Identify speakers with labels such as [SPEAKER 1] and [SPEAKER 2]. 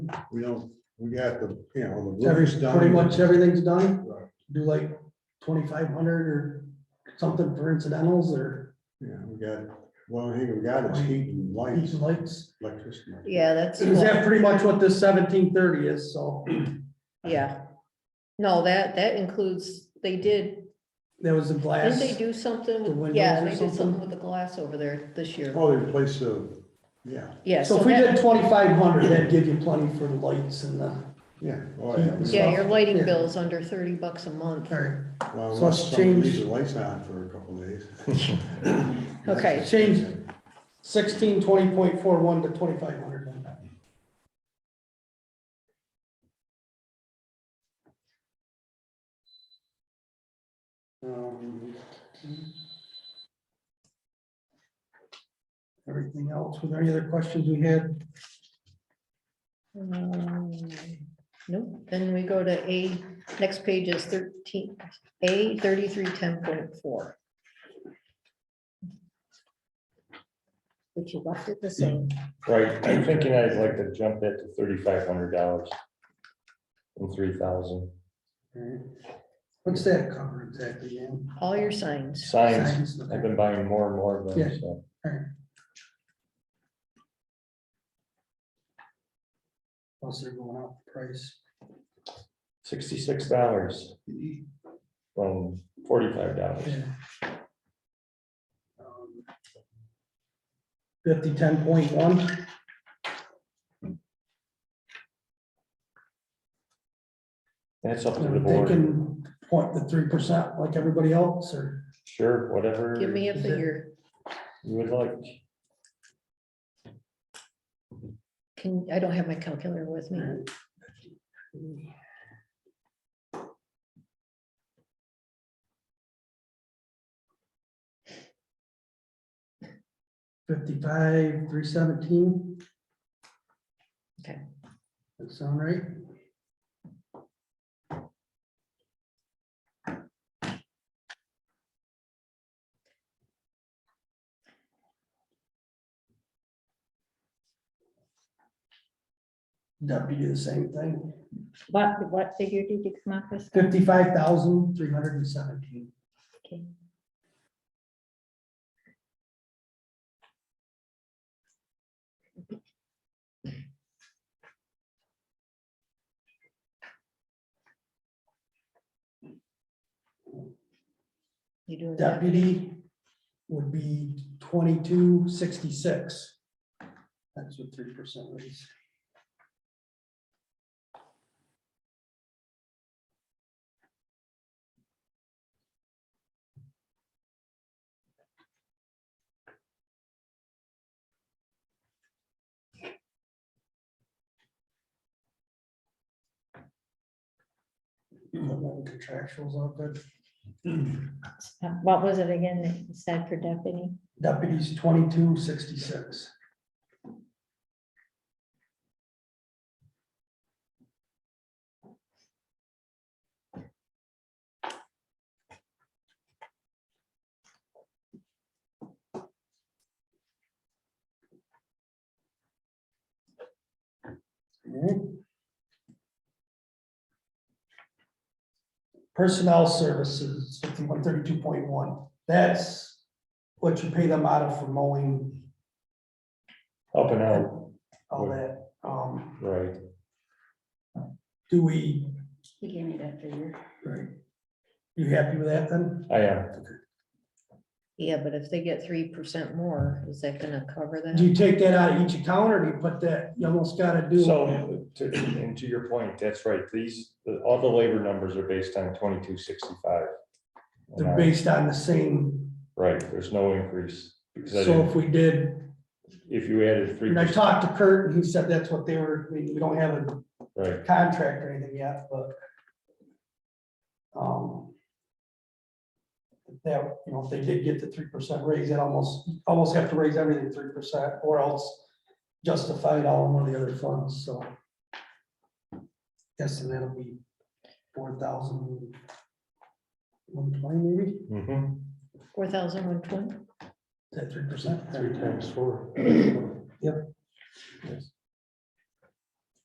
[SPEAKER 1] we don't, we got the, you know, the
[SPEAKER 2] Every,
[SPEAKER 1] roof's done.
[SPEAKER 2] pretty much everything's done,
[SPEAKER 1] Right,
[SPEAKER 2] do like twenty-five hundred or something for incidentals or
[SPEAKER 1] Yeah, we got, well, hey, we got is heat and
[SPEAKER 2] these
[SPEAKER 1] lights,
[SPEAKER 2] lights.
[SPEAKER 1] electricity.
[SPEAKER 3] Yeah, that's,
[SPEAKER 2] Is that pretty much what this seventeen thirty is, so
[SPEAKER 3] yeah. No, that, that includes, they did,
[SPEAKER 2] that was the
[SPEAKER 3] didn't
[SPEAKER 2] glass.
[SPEAKER 3] they do something?
[SPEAKER 2] The
[SPEAKER 3] with-
[SPEAKER 2] windows
[SPEAKER 3] Yeah,
[SPEAKER 2] or
[SPEAKER 3] they did something
[SPEAKER 2] something?
[SPEAKER 3] with the glass over there this year.
[SPEAKER 1] Oh, they replaced the, yeah,
[SPEAKER 3] Yeah.
[SPEAKER 2] So if we
[SPEAKER 3] that-
[SPEAKER 2] did twenty-five hundred, that'd give you plenty for the lights and the,
[SPEAKER 1] yeah. oh, yeah.
[SPEAKER 3] Yeah, your lighting
[SPEAKER 2] Yeah.
[SPEAKER 3] bill's under thirty bucks a month.
[SPEAKER 2] or
[SPEAKER 1] Well,
[SPEAKER 2] So let's
[SPEAKER 1] unless somebody
[SPEAKER 2] change-
[SPEAKER 1] leaves the lights on for a couple of days.
[SPEAKER 3] Okay.
[SPEAKER 2] change sixteen twenty point four one to twenty-five hundred. Um, Everything else, were there any other questions we had?
[SPEAKER 3] Um, Nope, then we go to A, next page is thirteen, A thirty-three ten point four. Which you left it the same.
[SPEAKER 4] Right, I'm thinking I'd like to jump that to thirty-five hundred dollars. From three thousand.
[SPEAKER 2] What's that cover exactly, Ann?
[SPEAKER 3] All your signs,
[SPEAKER 4] Signs,
[SPEAKER 2] okay.
[SPEAKER 4] I've been buying more and more of
[SPEAKER 2] Yeah.
[SPEAKER 4] them, so.
[SPEAKER 2] Plus they're going up in price.
[SPEAKER 4] Sixty-six dollars. From forty-five dollars.
[SPEAKER 2] Fifty ten Um, point one.
[SPEAKER 4] That's up to the
[SPEAKER 2] They
[SPEAKER 4] board.
[SPEAKER 2] can point the three percent like everybody else, or
[SPEAKER 4] Sure, whatever
[SPEAKER 3] give me
[SPEAKER 4] you
[SPEAKER 3] a figure,
[SPEAKER 4] would like.
[SPEAKER 3] can, I don't have my calculator with me.
[SPEAKER 2] fifty-five, three seventeen.
[SPEAKER 3] Okay.
[SPEAKER 2] That sound right? Deputy, the same thing,
[SPEAKER 5] What, what figure did you come up with?
[SPEAKER 2] fifty-five thousand, three hundred and seventeen.
[SPEAKER 5] Okay.
[SPEAKER 3] You doing that?
[SPEAKER 2] deputy would be twenty-two sixty-six. That's what three percent raise. Contractuals all good.
[SPEAKER 5] Uh, What was it again that you said for deputy?
[SPEAKER 2] Deputies twenty-two sixty-six. Personnel services, fifty-one thirty-two point one, that's what you pay them out of for mowing,
[SPEAKER 4] Up and out,
[SPEAKER 2] all that. Um,
[SPEAKER 4] right,
[SPEAKER 2] do we,
[SPEAKER 5] He gave me that figure.
[SPEAKER 2] you happy with that then?
[SPEAKER 4] I am,
[SPEAKER 3] Yeah, but if they get three percent more, is that gonna cover
[SPEAKER 2] Do
[SPEAKER 3] that?
[SPEAKER 2] you take that out of each account or do you put that, you almost gotta do.
[SPEAKER 4] so, to, and to your point, that's right, these, the- all the labor numbers are based on twenty-two sixty-five. uh,
[SPEAKER 2] They're based on the same,
[SPEAKER 4] Right, there's no increase, because I
[SPEAKER 2] so
[SPEAKER 4] didn't-
[SPEAKER 2] if we did,
[SPEAKER 4] if you added three
[SPEAKER 2] and I
[SPEAKER 4] percent,
[SPEAKER 2] talked to Kurt and he said that's what they were, we, we don't have a
[SPEAKER 4] right,
[SPEAKER 2] contract or anything yet, but. Um. That, you know, if they did get the three percent raise, they'd almost, almost have to raise everything three percent or else justify it all in one of the other funds, so. Guessing that'll be four thousand one twenty maybe,
[SPEAKER 4] mhm,
[SPEAKER 3] Four thousand one twenty?
[SPEAKER 2] is that three percent?
[SPEAKER 1] Three times four.
[SPEAKER 2] Yep.
[SPEAKER 4] yes.